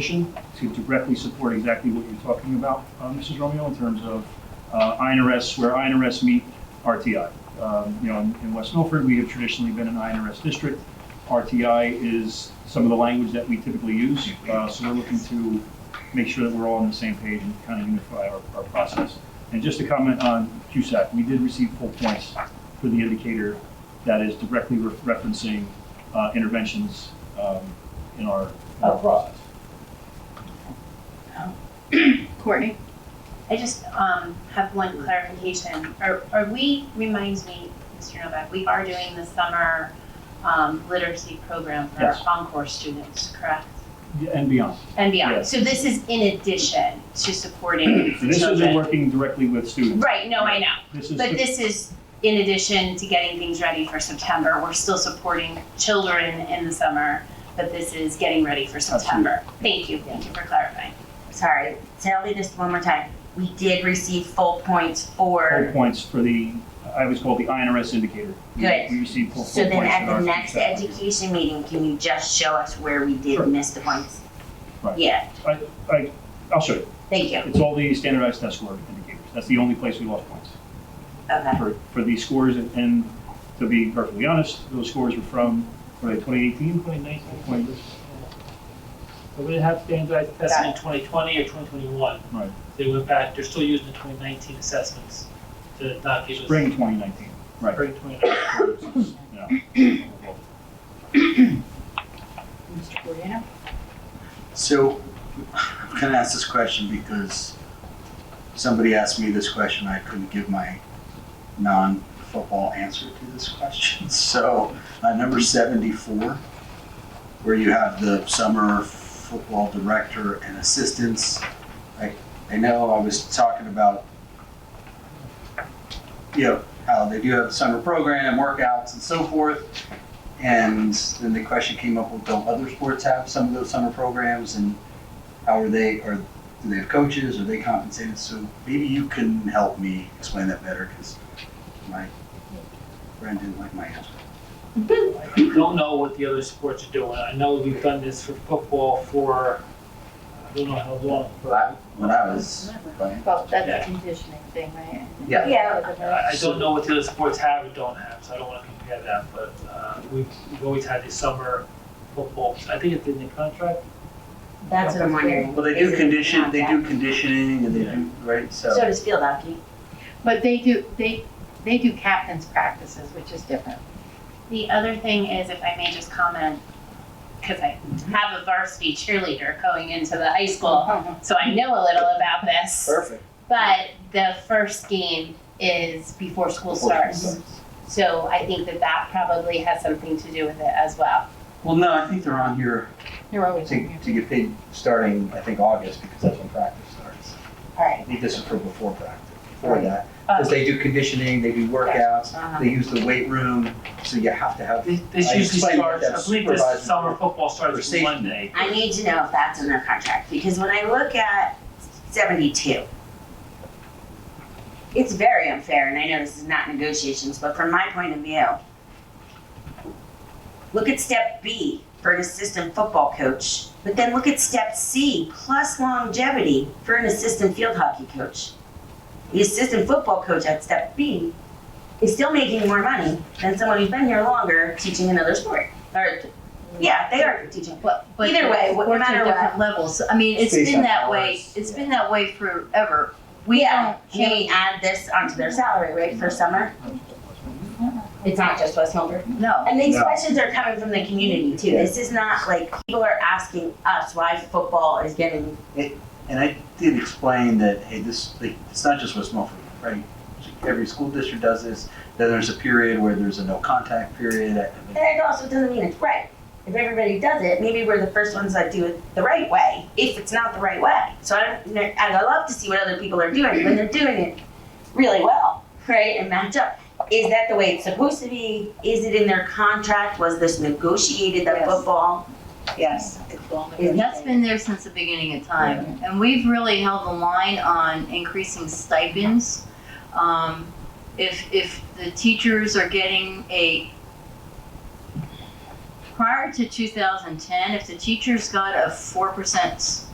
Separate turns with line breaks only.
position to directly support exactly what you're talking about, uh, Mrs. Romeo, in terms of uh, INRS, where INRS meet RTI. Um, You know, in in West Milford, we have traditionally been an INRS district. RTI is some of the language that we typically use, uh, so we're looking to make sure that we're all on the same page and kind of unify our our process. And just to comment on CUSAC, we did receive full points for the indicator that is directly re- referencing uh, interventions um, in our in our process.
Courtney?
I just um, have one clarification. Are, are we, reminds me, Mr. Novak, we are doing the summer um, literacy program for
Yes.
Encore students, correct?
Yeah, and beyond.
And beyond.
Yes.
So this is in addition to supporting
So this isn't
children.
working directly with students.
Right, no, I know.
This is,
But this is in addition to getting things ready for September. We're still supporting children in the summer, but this is getting ready for September. Thank you, thank you for clarifying.
Sorry, tell me this one more time. We did receive full points
full
for,
points for the, I always call it the INRS indicator. We-
Good.
We receive full
so
full points.
then
in
at the
our
next
feedback.
education meeting, can you just show us where we
Sure.
did miss the points?
Right.
Yeah,
I'll show you.
thank you.
Oh, It's all the standardized test score indicators. That's the only place we lost points
Okay,
for, for these scores. And- And to be perfectly honest, those scores were from, were they 2018?
2019. But we didn't have standardized testing in 2020 or 2021.
Right.
They went back, they're still using the 2019 assessments to not give us.
Spring 2019. Right.
Spring 2019.
Yeah.
Mr. Cordino?
So, I'm gonna ask this question because somebody asked me this question, I couldn't give my non-football answer to this question. So, uh, number seventy-four, where you have the summer football director and assistants. I, I know I was talking about, you know, how they do have a summer program, workouts and so forth. And then the question came up, well, don't other sports have some of those summer programs and how are they, or do they have coaches, are they compensated? So maybe you can help me explain that better, because my friend didn't like my answer.
I Don't know what the other sports are doing. I know we've done this for football for, I don't know how long. but I-
When I was playing,
Well,
Yeah.
that's a conditioning thing, right?
Yeah.
Yeah.
I don't know what the other sports have or don't have, so I don't want to compare that, but uh, we've we've always had these summer football. I think it's in the contract.
that's what I'm wondering.
well, they do
Is it
condition,
not
they
that?
do conditioning and they do, right,
So
so.
does field hockey.
But they do, they, they do captain's practices, which is different.
The other thing is, if I may just comment, because I have a varsity cheerleader going into the high school,
Uh-huh.
so I know a little about this.
Perfect.
But the first game is before school starts. So I think that that probably has something to do with it as well.
Well, no, I think they're on here
You're always
to,
in
to get paid starting, I think, August, because that's when practice starts.
All
I
right.
think this is for before practice, before that.
Uh,
Because they do conditioning, they do workouts,
Uh-huh.
they use the weight room, so you have to have,
This this
I
usually
explained that
starts, I
that's
believe this
supervised
summer football
for
starts
safety.
Monday.
I need to know if that's in their contract, because when I look at seventy-two, it's very unfair, and I know this is not negotiations, but from my point of view, look at step B for an assistant football coach, but then look at step C plus longevity for an assistant field hockey coach. The assistant football coach at step B is still making more money than someone who's been here longer teaching another sport, or, yeah, they are teaching.
But, but
Either way, what- no
sports are
matter what.
different levels. I mean, it's
Based
been
on
that way.
hours,
It's
yeah.
been that way forever.
We
We
yeah.
don't
Can we
change.
add this onto their salary rate for summer? It's not just West Milford.
No.
And these
No.
questions are coming from the community too. This is not like people are asking us why football is getting
and I did explain that, hey, this, like, it's not just West Milford, right? Every school district does this, then there's a period where there's a no contact period. I- I mean,
and it also doesn't mean it's right. If everybody does it, maybe we're the first ones that do it the right way, if it's not the right way. So I don't, and I love to see what other people are doing, when they're doing it really well, right, and match up. Is that the way it's supposed to be? Is it in their contract? Was this negotiated, that
Yes.
football?
Yes.
is-
That's been there since the beginning of time. And we've really held the line on increasing stipends. Um, if, if the teachers are getting a,
prior to 2010, if the teachers got a 4%